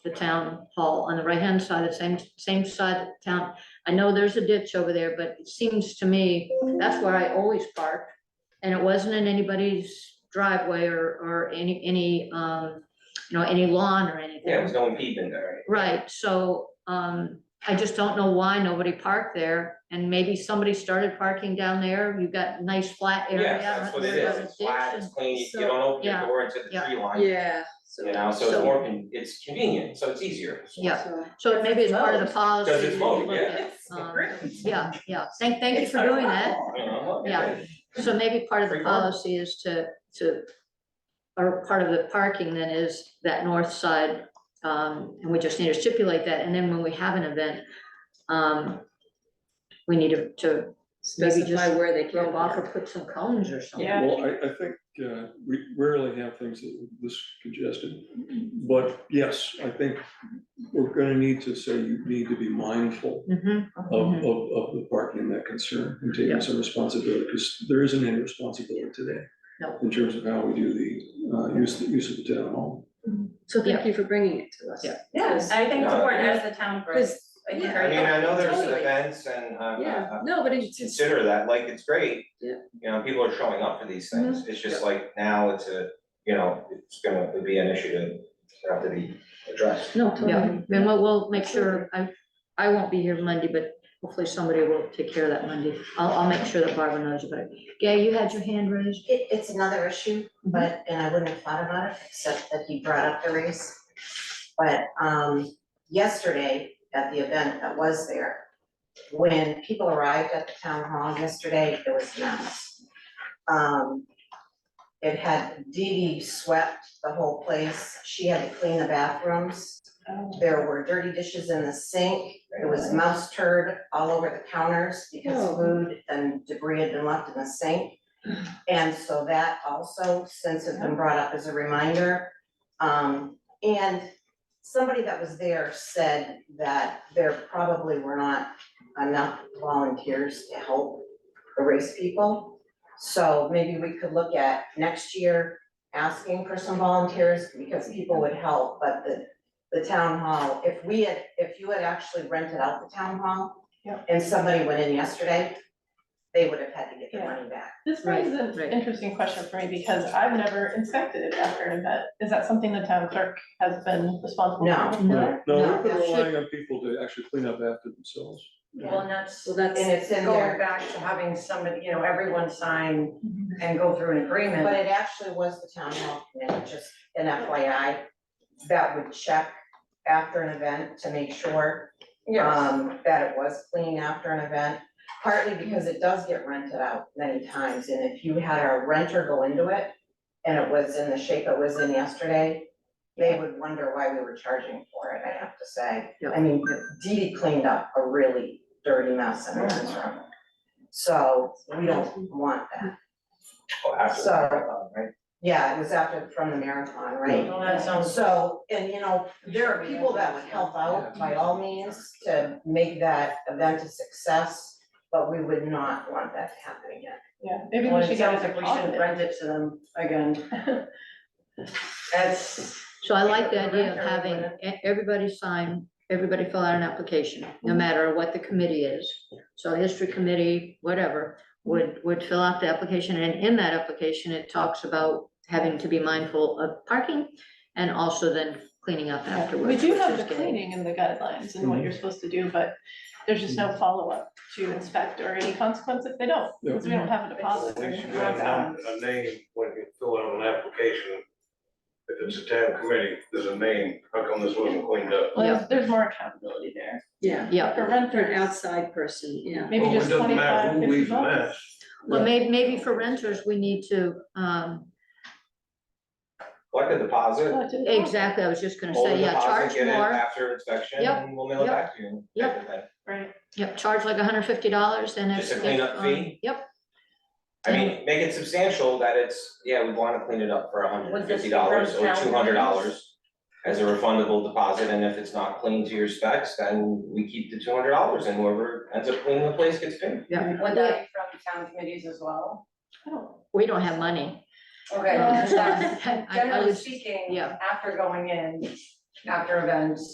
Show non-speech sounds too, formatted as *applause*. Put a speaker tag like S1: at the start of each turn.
S1: the town hall on the right-hand side, the same, same side of town. I know there's a ditch over there, but it seems to me, that's where I always park. And it wasn't in anybody's driveway or, or any, any, um, you know, any lawn or anything.
S2: Yeah, there's no one peeping there.
S1: Right, so, um, I just don't know why nobody parked there, and maybe somebody started parking down there, you've got nice flat area.
S2: Yeah, that's what it
S1: there's
S2: is,
S1: a
S2: it's flat,
S1: ditch,
S2: it's
S1: and-
S2: clean, you-
S3: so-
S2: you don't open your
S1: yeah,
S2: door into the
S1: yeah.
S2: tree line.
S3: Yeah, so.
S2: You know, so
S1: So-
S2: it's more, con- it's convenient, so it's easier.
S1: Yeah,
S3: so-
S1: so maybe it's part of the
S3: Mowed.
S1: policy.
S2: Because it's mowed,
S1: that you look
S2: yeah.
S1: at, um, Yeah, yeah, thank, thank you
S3: It's
S1: for
S3: not a
S1: doing that,
S3: problem.
S2: You know,
S1: Yeah. so maybe part of the
S2: Free parking.
S1: policy is to, to, or part of the parking then is that north side, um, and we just need to stipulate that, and then when we have an event, um, we need to, to Maybe
S3: Specify
S1: just
S3: where they
S1: throw
S3: can
S1: them off or put some cones or something.
S3: Yeah.
S4: Well, I, I think, uh, we rarely have things that are this congested, but yes, I think we're gonna need to say you need to be mindful
S1: Mhm.
S2: Oh.
S4: of, of, of the parking and that concern and
S1: Yeah.
S4: taking some responsibility, because there isn't any responsibility today
S1: No.
S4: in terms of how we do the, uh, use, the use of the town hall.
S3: So
S1: Yeah.
S3: thank you for bringing it to us.
S1: Yeah.
S5: Yeah, I
S3: Yes.
S5: think it's
S2: No,
S5: important
S3: yeah.
S5: as the town grows.
S3: Because,
S5: I think
S3: yeah,
S2: I mean, I know there's
S3: Totally.
S2: events and, uh,
S3: yeah,
S2: uh,
S3: no, but it's just,
S2: consider that, like, it's great.
S3: Yeah.
S2: You know, people are showing up for these
S1: Mm-hmm.
S2: things, it's just like now it's a, you know, it's gonna it'd be an issue to have to be addressed.
S3: no, totally.
S1: Yeah, then we'll, we'll make sure, I, I won't be here Monday, but hopefully somebody will take care of that Monday. I'll, I'll make sure that Barbara knows about it. Yeah, you had your hand raised.
S6: It, it's another issue, but, and I wouldn't have thought about it, except that he brought up the race. But, um, yesterday at the event that was there, when people arrived at the town hall yesterday, it was nuts. Um, it had, Dee Dee swept the whole place, she had to clean the bathrooms. There were dirty dishes in the sink, there was mouse turd all over the counters because
S3: Oh.
S6: food and debris had been left in the sink. And so that also, since it's been brought up as a reminder, um, and somebody that was there said that there probably were not enough volunteers to help erase people. So maybe we could look at next year, asking for some volunteers, because people would help, but the, the town hall, if we had, if you had actually rented out the town hall and somebody went in yesterday, they would have had to get their money back.
S7: This raises
S1: Right,
S7: an
S1: right.
S7: interesting question for me because I've never inspected it after an event. Is that something the town clerk has been responsible for?
S6: No.
S4: No,
S1: no,
S4: we've been
S1: that should-
S4: relying on people to actually clean up after themselves.
S5: Well, and that's
S3: Well, that's,
S6: And it's in
S5: going
S6: there,
S5: back to having somebody, you know, everyone sign and go through an agreement.
S6: but it actually was the town hall committee, just an FYI, that would check after an event to make sure
S5: Yes,
S6: um, that it was clean after an event, partly because it does get rented out many times, and if you had a renter go into it and it was in the shape it was in yesterday, they would wonder why we were charging for it, I have to say.
S1: Yeah.
S6: I mean, Dee Dee cleaned up a really dirty mess in her room. So we don't want that.
S2: Well, after the
S6: So-
S2: marathon, right?
S6: Yeah, it was after, from the marathon, right?
S5: well, that sounds,
S6: So, and you know, there are people that would help out by all means to make that event a success, but we would not want that to happen again.
S7: Yeah, maybe
S5: well,
S7: we
S5: it
S7: should get
S5: sounds
S7: a
S5: like we shouldn't
S7: deposit.
S5: rent it to them again. That's,
S1: So I like the idea of having e- everybody sign, everybody fill out an application,
S7: Mm-hmm.
S1: no matter what the committee is. So history committee, whatever,
S7: Mm-hmm.
S1: would, would fill out the application, and in that application, it talks about having to be mindful of parking and also then cleaning up afterwards.
S7: We do
S1: which
S7: have
S1: is
S7: the
S1: getting- Mhm.
S7: cleaning and the guidelines and what you're supposed to do, but there's just no follow-up to inspect or any consequence if they don't. Because
S1: Mhm.
S7: we don't have a deposit. or
S8: We
S7: anything
S8: should
S7: like
S8: have
S7: that.
S8: a a name when you fill out an application. If it's a town committee, there's a name, how come this wasn't cleaned up?
S7: Well, there's, there's more accountability there.
S3: yeah,
S1: Yeah,
S7: For
S3: for an
S7: renters,
S3: outside person, yeah.
S7: maybe
S8: Well,
S7: just twenty-five,
S8: It doesn't matter who
S7: fifty
S8: leaves a
S7: bucks.
S8: mess.
S1: well, may, maybe for renters, we need to, um,
S2: Like a deposit,
S7: Oh, it didn't matter.
S1: Exactly, I was just gonna
S2: hold the
S1: say, yeah, charge
S2: deposit, get it
S1: more,
S2: after inspection,
S1: Yep,
S2: and we'll mail it
S1: yep,
S2: back to you.
S1: yep.
S2: type of thing.
S7: Right.
S1: yep, charge like hundred fifty dollars and if.
S2: Just a cleanup
S1: if, um,
S2: fee?
S1: Yep,
S2: I mean, make it substantial that it's, yeah, we wanna clean it up for hundred and
S5: Would this
S2: fifty
S5: be
S2: dollars or
S5: worth
S2: two hundred dollars as a refundable deposit, and if it's not clean to your specs, then we keep the two hundred dollars, and whoever ends up cleaning the place gets paid.
S5: would that be from town committees as well?
S7: I don't-
S1: we don't have money.
S5: Okay,
S1: Uh, *laughs*
S5: *laughs* because Oh, that's-
S1: I- I
S5: generally
S1: would-
S5: speaking,
S1: yeah.
S5: after going in, after events.